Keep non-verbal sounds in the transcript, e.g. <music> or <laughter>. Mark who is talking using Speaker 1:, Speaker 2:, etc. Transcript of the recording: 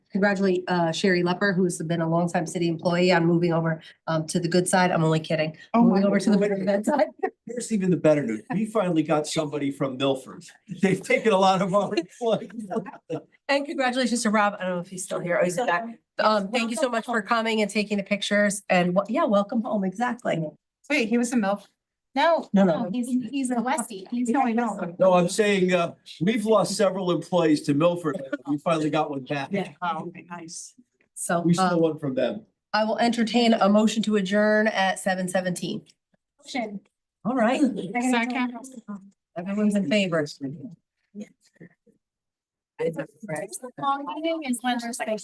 Speaker 1: congratulate uh Sherry Lepper, who's been a longtime city employee on moving over um to the good side. I'm only kidding.
Speaker 2: Oh my
Speaker 1: Moving over to the
Speaker 2: goodness.
Speaker 1: good side.
Speaker 3: Here's even the better news. We finally got somebody from Milford. <laughs> They've taken a lot of our employees.
Speaker 1: And congratulations to Rob. I don't know if he's still here. Oh, he's back. Um, thank you so much for coming and taking the pictures and, wel- yeah, welcome home. Exactly.
Speaker 2: Wait, he was a MILF? No.
Speaker 1: No,
Speaker 4: No,
Speaker 1: no.
Speaker 4: he's, he's a Westie. He's
Speaker 2: Yeah,
Speaker 4: going
Speaker 2: I know.
Speaker 4: home.
Speaker 3: No, I'm saying, uh, we've lost several employees to Milford. We finally got one back.
Speaker 1: Yeah.
Speaker 2: Oh, okay, nice.
Speaker 1: So
Speaker 3: We stole
Speaker 1: um,
Speaker 3: one from them.
Speaker 1: I will entertain a motion to adjourn at seven seventeen.
Speaker 4: Motion.
Speaker 1: All right,
Speaker 2: Second.
Speaker 1: everyone's in favor.
Speaker 4: Long meeting is when there's like